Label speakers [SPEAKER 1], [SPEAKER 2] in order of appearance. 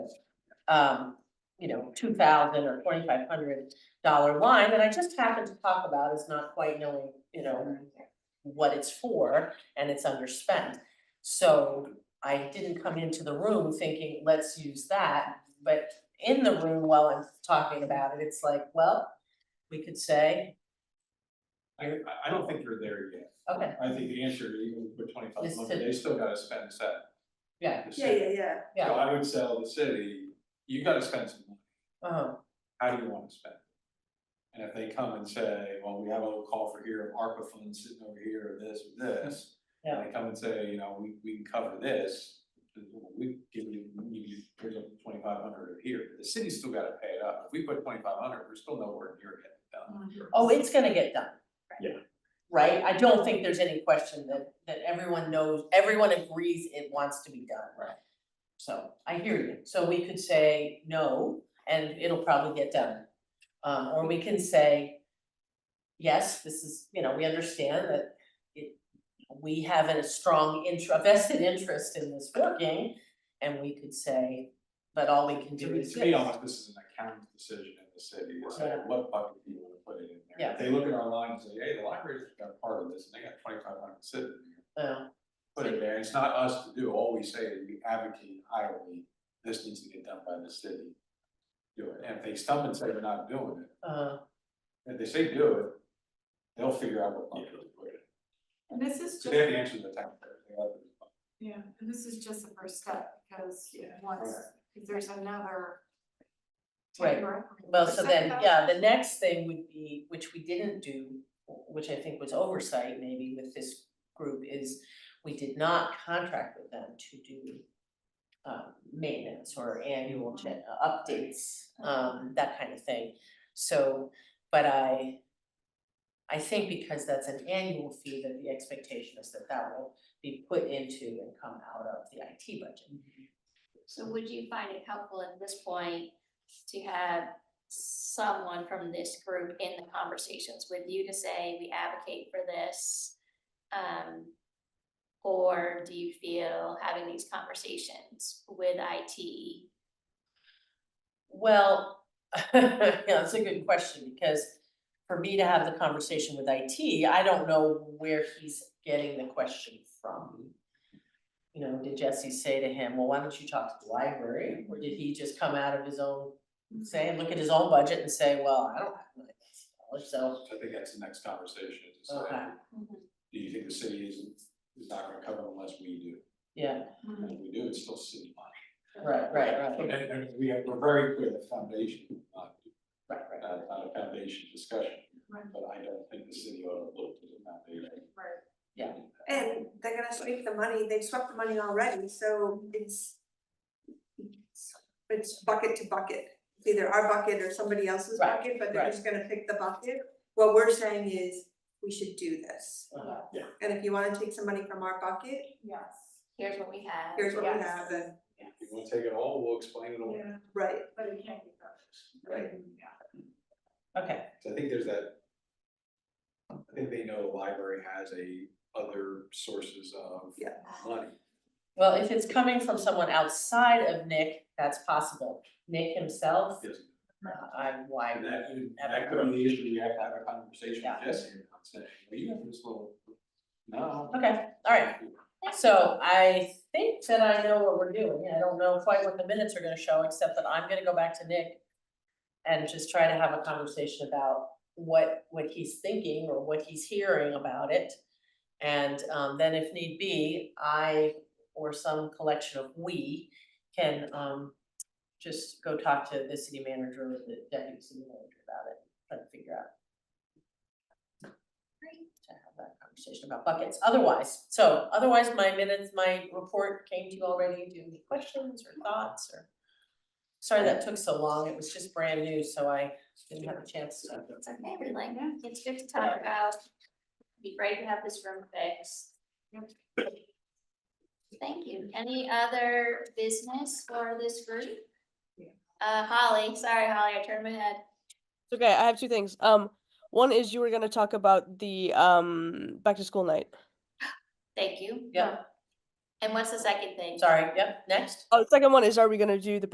[SPEAKER 1] um, you know, two thousand or twenty-five hundred dollar line that I just happened to talk about is not quite knowing, you know, what it's for and it's underspent. So I didn't come into the room thinking, let's use that, but in the room while I'm talking about it, it's like, well, we could say,
[SPEAKER 2] I, I- I don't think you're there yet.
[SPEAKER 1] okay,
[SPEAKER 2] I think the answer, even with twenty-five
[SPEAKER 1] Is
[SPEAKER 2] hundred,
[SPEAKER 1] to-
[SPEAKER 2] they still gotta spend that.
[SPEAKER 1] yeah,
[SPEAKER 2] the
[SPEAKER 3] Yeah,
[SPEAKER 2] city.
[SPEAKER 3] yeah, yeah,
[SPEAKER 2] So
[SPEAKER 1] yeah,
[SPEAKER 2] I would sell the city, you gotta spend some money,
[SPEAKER 1] uh-huh,
[SPEAKER 2] how do you wanna spend? it? And if they come and say, well, we have a little call for here, ARPA funds sitting over here, or this, or this. And they come and say, you know, we, we can cover this, we give you, you, here's twenty-five hundred here, the city's still gotta pay it up, if we put twenty-five hundred, we're still nowhere near getting done.
[SPEAKER 1] oh, it's gonna get done.
[SPEAKER 2] Yeah.
[SPEAKER 1] Right, I don't think there's any question that, that everyone knows, everyone agrees it wants to be done.
[SPEAKER 2] Right.
[SPEAKER 1] So, I hear you, so we could say no, and it'll probably get done. Um, or we can say, yes, this is, you know, we understand that it, we have a strong intro, a vested interest in this working, and we could say, but all we can
[SPEAKER 2] To
[SPEAKER 1] do
[SPEAKER 2] be,
[SPEAKER 1] is
[SPEAKER 2] to be
[SPEAKER 1] this.
[SPEAKER 2] honest, this is an accounting decision in the city, it's like,
[SPEAKER 1] Yeah.
[SPEAKER 2] what bucket do you wanna put it in there?
[SPEAKER 1] Yeah.
[SPEAKER 2] If They look at our line and say, hey, the library's got a part of this, and they got twenty-five hundred sitting there,
[SPEAKER 1] Uh,
[SPEAKER 2] put it there, it's not us to do, all we say is we advocate highly, this needs to get done by the city. Do it, and if they stump and say they're not doing it,
[SPEAKER 1] uh,
[SPEAKER 2] if they say do it, they'll figure out what bucket to put it
[SPEAKER 4] And this is
[SPEAKER 2] in, so they have
[SPEAKER 4] just,
[SPEAKER 2] to answer to the taxpayer, they have to-
[SPEAKER 4] yeah, and this is just the first step, because
[SPEAKER 2] Yeah.
[SPEAKER 4] once,
[SPEAKER 2] Right.
[SPEAKER 4] if there's another.
[SPEAKER 1] Right.
[SPEAKER 4] temporary-
[SPEAKER 1] Well, so then,
[SPEAKER 4] Second
[SPEAKER 1] yeah, the next thing would be, which we didn't do, which I think was oversight maybe with this group, is we did not contract with them to do um maintenance or annual gen- uh, updates, um that kind of thing. So, but I I think because that's an annual fee, that the expectation is that that will be put into and come out of the IT budget.
[SPEAKER 5] So would you find it helpful at this point to have someone from this group in the conversations with you to say, we advocate for this? Um, or do you feel having these conversations with IT?
[SPEAKER 1] Well, yeah, that's a good question, because for me to have the conversation with IT, I don't know where he's getting the question from. You know, did Jesse say to him, well, why don't you talk to the library, or did he just come out of his own, say, look at his own budget and say, well, I don't have my knowledge, so.
[SPEAKER 2] I think that's the next conversation, is to say,
[SPEAKER 1] Okay,
[SPEAKER 2] do you think the city is, is not gonna cover it unless we do?
[SPEAKER 1] yeah,
[SPEAKER 2] And
[SPEAKER 4] Mm-hmm.
[SPEAKER 2] if we do, it's still city money.
[SPEAKER 1] right, right, right,
[SPEAKER 2] And, and we have, we're very clear the foundation, not,
[SPEAKER 1] right, right,
[SPEAKER 2] not not a foundation discussion,
[SPEAKER 4] Right.
[SPEAKER 2] but I don't think the city ought to look to the foundation.
[SPEAKER 4] Right.
[SPEAKER 3] and they're gonna sweep the money, they've swept the money already, so it's. It's bucket to bucket, It's either our bucket or somebody else's
[SPEAKER 1] Right,
[SPEAKER 3] bucket, but they're
[SPEAKER 1] right.
[SPEAKER 3] just gonna pick the bucket. What we're saying is, we should do this,
[SPEAKER 1] uh-huh,
[SPEAKER 3] and if you wanna take some money from our bucket,
[SPEAKER 4] Yes,
[SPEAKER 5] Here's what we have.
[SPEAKER 3] here's what we
[SPEAKER 4] Yes.
[SPEAKER 3] have, and,
[SPEAKER 4] yes,
[SPEAKER 2] If you wanna take it all, we'll explain it all.
[SPEAKER 4] yeah,
[SPEAKER 3] right,
[SPEAKER 4] but it can't be perfect.
[SPEAKER 3] Right.
[SPEAKER 4] Yeah.
[SPEAKER 1] okay,
[SPEAKER 2] So I think there's that. I think they know the library has a other sources of
[SPEAKER 3] Yeah.
[SPEAKER 2] money.
[SPEAKER 1] well, if it's coming from someone outside of Nick, that's possible, Nick himself, uh,
[SPEAKER 2] Yes.
[SPEAKER 1] I, why
[SPEAKER 2] And
[SPEAKER 1] would
[SPEAKER 2] that,
[SPEAKER 1] you ever?
[SPEAKER 2] that could be the issue, you have to have a conversation
[SPEAKER 1] Yeah.
[SPEAKER 2] with Jesse, and say, well, you have this little, no.
[SPEAKER 1] Okay, all right, so I think that I know what we're doing, I don't know quite what the minutes are gonna show, except that I'm gonna go back to Nick. And just try to have a conversation about what, what he's thinking or what he's hearing about it. And, um, then if need be, I, or some collection of we, can, um, just go talk to the city manager or the deputy city manager about it, try to figure out. To have that conversation about buckets, otherwise, so otherwise, my minutes, my report came to you already, do you have any questions or thoughts or? Sorry that took so long, it was just brand new, so I didn't have a chance to.
[SPEAKER 5] It's okay, we like, it's good to talk about. Be great to have this room fixed. Thank you. Any other business for this group? Uh, Holly, sorry, Holly, I turned my head.
[SPEAKER 6] It's okay. I have two things. Um, one is you were gonna talk about the um back to school night.
[SPEAKER 5] Thank you.
[SPEAKER 1] Yeah.
[SPEAKER 5] And what's the second thing?
[SPEAKER 1] Sorry, yep, next.
[SPEAKER 6] Oh, the second one is are we gonna do the